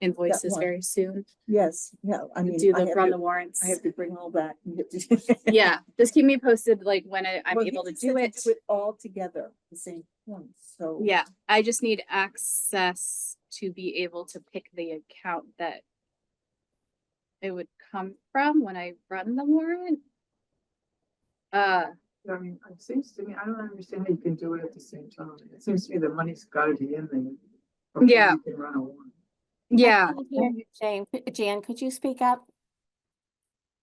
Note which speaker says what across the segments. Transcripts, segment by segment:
Speaker 1: invoices
Speaker 2: one.
Speaker 1: very soon,
Speaker 2: Yes, yeah, I mean.
Speaker 1: do
Speaker 2: I
Speaker 1: the,
Speaker 2: have
Speaker 1: run
Speaker 2: to-
Speaker 1: the warrants.
Speaker 2: I have to bring all that. and get to-
Speaker 1: Yeah, just keep me posted, like when I- I'm
Speaker 2: Well, he
Speaker 1: able to
Speaker 2: just said
Speaker 1: do it.
Speaker 2: It all together, at the same point, so.
Speaker 1: Yeah, I just need access to be able to pick the account that it would come from when I run the warrant. Uh,
Speaker 3: I mean, it seems to me, I don't understand how you can do it at the same time. It seems to me the money's gotta be in there. before
Speaker 1: Yeah.
Speaker 3: you Can run a warrant.
Speaker 1: yeah,
Speaker 4: can't hear you, Jane, Could- Jan, could you speak up?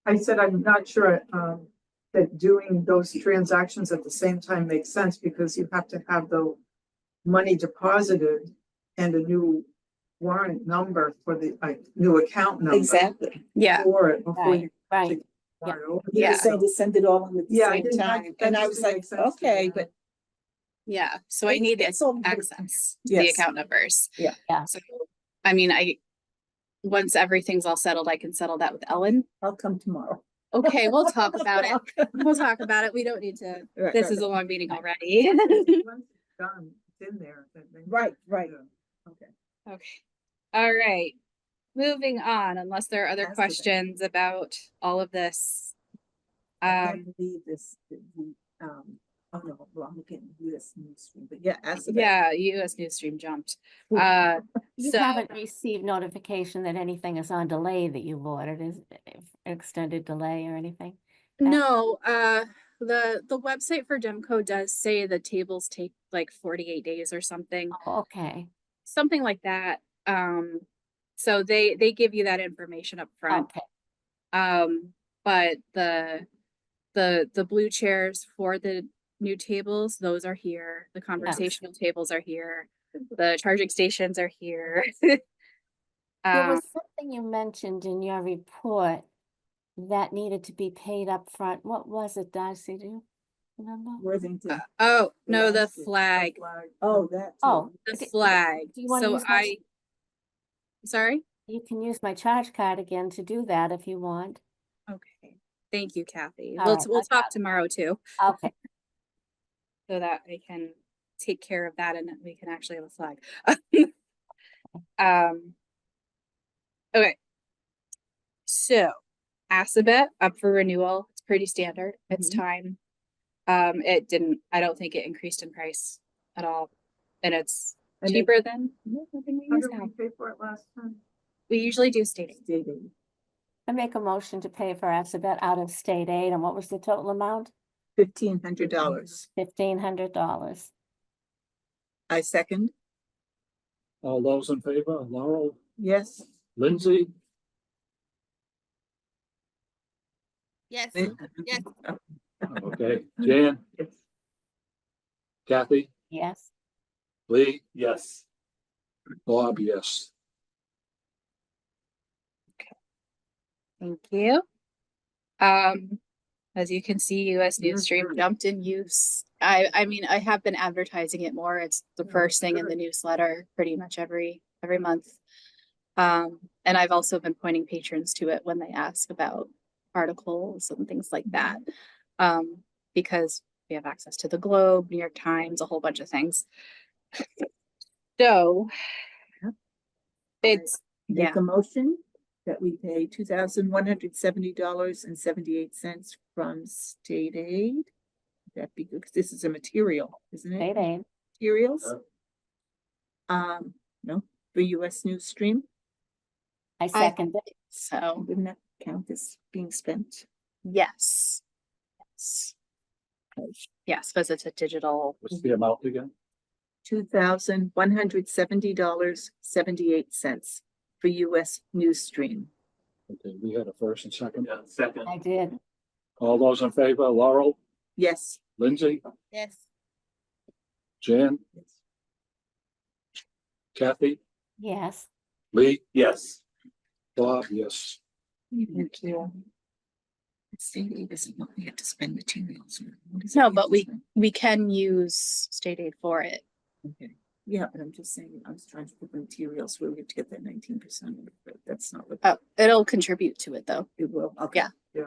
Speaker 3: I said, I'm not sure, um, that doing those transactions at the same time makes sense because you have to have the money deposited and a new warrant number for the, like, new account number.
Speaker 2: Exactly.
Speaker 1: yeah,
Speaker 3: For it before you.
Speaker 4: Right, yeah.
Speaker 3: start over.
Speaker 2: He
Speaker 1: Yeah.
Speaker 2: was saying to send it all in at the
Speaker 3: Yeah, I
Speaker 2: same
Speaker 3: didn't- I-
Speaker 2: time,
Speaker 3: that
Speaker 2: and I
Speaker 3: just
Speaker 2: was
Speaker 3: didn't
Speaker 2: like,
Speaker 3: make sense to me.
Speaker 2: okay, but.
Speaker 1: yeah. So I
Speaker 2: it's-
Speaker 1: need
Speaker 2: it's all good.
Speaker 1: access to the
Speaker 2: Yes.
Speaker 1: account numbers.
Speaker 2: Yeah.
Speaker 4: Yeah.
Speaker 1: So, I mean, I, once everything's all settled, I can settle that with Ellen.
Speaker 2: I'll come tomorrow.
Speaker 1: Okay, we'll talk about it. We'll talk about it. We don't need to,
Speaker 2: Right,
Speaker 1: this
Speaker 2: right,
Speaker 1: is a
Speaker 2: right.
Speaker 1: long meeting already.
Speaker 3: Once it's Done, it's in there. then they-
Speaker 2: Right, right.
Speaker 3: Yeah.
Speaker 1: Okay, all right. Moving on, unless there are other
Speaker 2: That's okay.
Speaker 1: questions about all of this.
Speaker 2: I can't
Speaker 1: Um,
Speaker 2: believe this, that we, um, oh no, well, I'm looking at this newsroom, but yeah, ask
Speaker 1: Um,
Speaker 2: about it.
Speaker 1: yeah, US Newsstream jumped.
Speaker 2: Ooh.
Speaker 1: Uh,
Speaker 4: You
Speaker 1: So-
Speaker 4: haven't received notification that anything is on delay that you've ordered, is if extended delay or anything? Yeah.
Speaker 1: no, uh, the, the website for Demco does say the tables take like forty-eight days or something,
Speaker 4: Oh, Okay,
Speaker 1: something like that. Um, so they, they give you that information up front.
Speaker 4: okay,
Speaker 1: Um, but the, the, the blue chairs for the new tables, those are here. The conversational tables are here. The charging stations are here.
Speaker 4: there
Speaker 1: Um,
Speaker 4: was something you mentioned in your report that needed to be paid up front. what was it, Darcy, do you remember?
Speaker 2: Worthington,
Speaker 1: oh, no, the
Speaker 2: Last year, the
Speaker 1: flag,
Speaker 2: oh, that.
Speaker 4: Oh,
Speaker 2: too.
Speaker 1: the
Speaker 4: d- d-
Speaker 1: flag.
Speaker 4: do you wanna
Speaker 1: So
Speaker 4: use my-
Speaker 1: I, sorry?
Speaker 4: You can use my charge card again to do that if you want,
Speaker 1: Okay. Thank you, Kathy.
Speaker 4: All
Speaker 1: We'll,
Speaker 4: right,
Speaker 1: we'll
Speaker 4: I got
Speaker 1: talk tomorrow too,
Speaker 4: okay,
Speaker 1: so that I can take care of that and that we can actually have a flag. Um. Okay. So, Assabet up for renewal. It's pretty standard. It's
Speaker 2: Mhm.
Speaker 1: time. Um, it didn't, I don't think it increased in price at all. And it's
Speaker 2: And it-
Speaker 1: cheaper than
Speaker 2: Yeah, I think we
Speaker 3: How
Speaker 2: used
Speaker 3: did we pay for it last time?
Speaker 1: we usually do
Speaker 2: it.
Speaker 1: stating.
Speaker 2: Dating.
Speaker 4: I make a motion to pay for Assabet E out of state aid, and what was the total amount?
Speaker 2: Fifteen hundred dollars.
Speaker 4: Fifteen hundred dollars.
Speaker 2: I second,
Speaker 5: All those in favor, Laurel,
Speaker 2: yes.
Speaker 5: Lindsay,
Speaker 6: Yes, yes.
Speaker 5: okay, Jan,
Speaker 3: It's
Speaker 5: Kathy,
Speaker 4: Yes,
Speaker 5: Lee? Yes. Bob, yes.
Speaker 1: Thank you. Um, as you can see, US Newsstream jumped in use. I, I mean, I have been advertising it more. It's the
Speaker 3: Yeah,
Speaker 1: first thing in the
Speaker 3: good.
Speaker 1: newsletter pretty much every, every month. Um, and I've also been pointing patrons to it when they ask about articles and things like that. Um, because we have access to the Globe, New York Times, a whole bunch of things. So it's, yeah.
Speaker 2: Make a motion that we pay two thousand one hundred seventy dollars and seventy-eight cents from state aid. That'd be good, 'cause this is a material, isn't it?
Speaker 4: state aid.
Speaker 2: Materials.
Speaker 5: Yeah.
Speaker 2: Um, no, for US News Stream,
Speaker 4: I second it.
Speaker 1: so,
Speaker 2: wouldn't that count as being spent?
Speaker 1: yes. Yes. Yes, because it's a digital
Speaker 5: What's the amount again?
Speaker 2: Two thousand one hundred seventy dollars, seventy-eight cents for US News Stream.
Speaker 5: Okay, we had a first and second.
Speaker 7: Yeah, second.
Speaker 4: I did.
Speaker 5: All those in favor, Laurel,
Speaker 2: Yes.
Speaker 5: Lindsay,
Speaker 6: Yes.
Speaker 5: Jan, Kathy,
Speaker 4: Yes.
Speaker 5: Lee,
Speaker 7: Yes.
Speaker 5: Bob, yes.
Speaker 1: Mm-hmm.
Speaker 2: Thank you. State aid isn't what we have to spend materials. on. What is it
Speaker 1: No,
Speaker 2: have
Speaker 1: but
Speaker 2: to
Speaker 1: we-
Speaker 2: spend?
Speaker 1: we can use state aid for it.
Speaker 2: Okay, yeah, but I'm just saying, I was trying to put materials where we have to get that nineteen percent, but that's not what
Speaker 1: Oh, it'll contribute to it though.
Speaker 2: it will, okay.
Speaker 1: Yeah.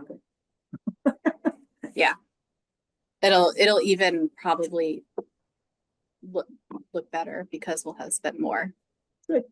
Speaker 3: Yeah.
Speaker 2: Okay.
Speaker 1: It'll, it'll even probably look, look better because we'll have spent more.
Speaker 2: Good.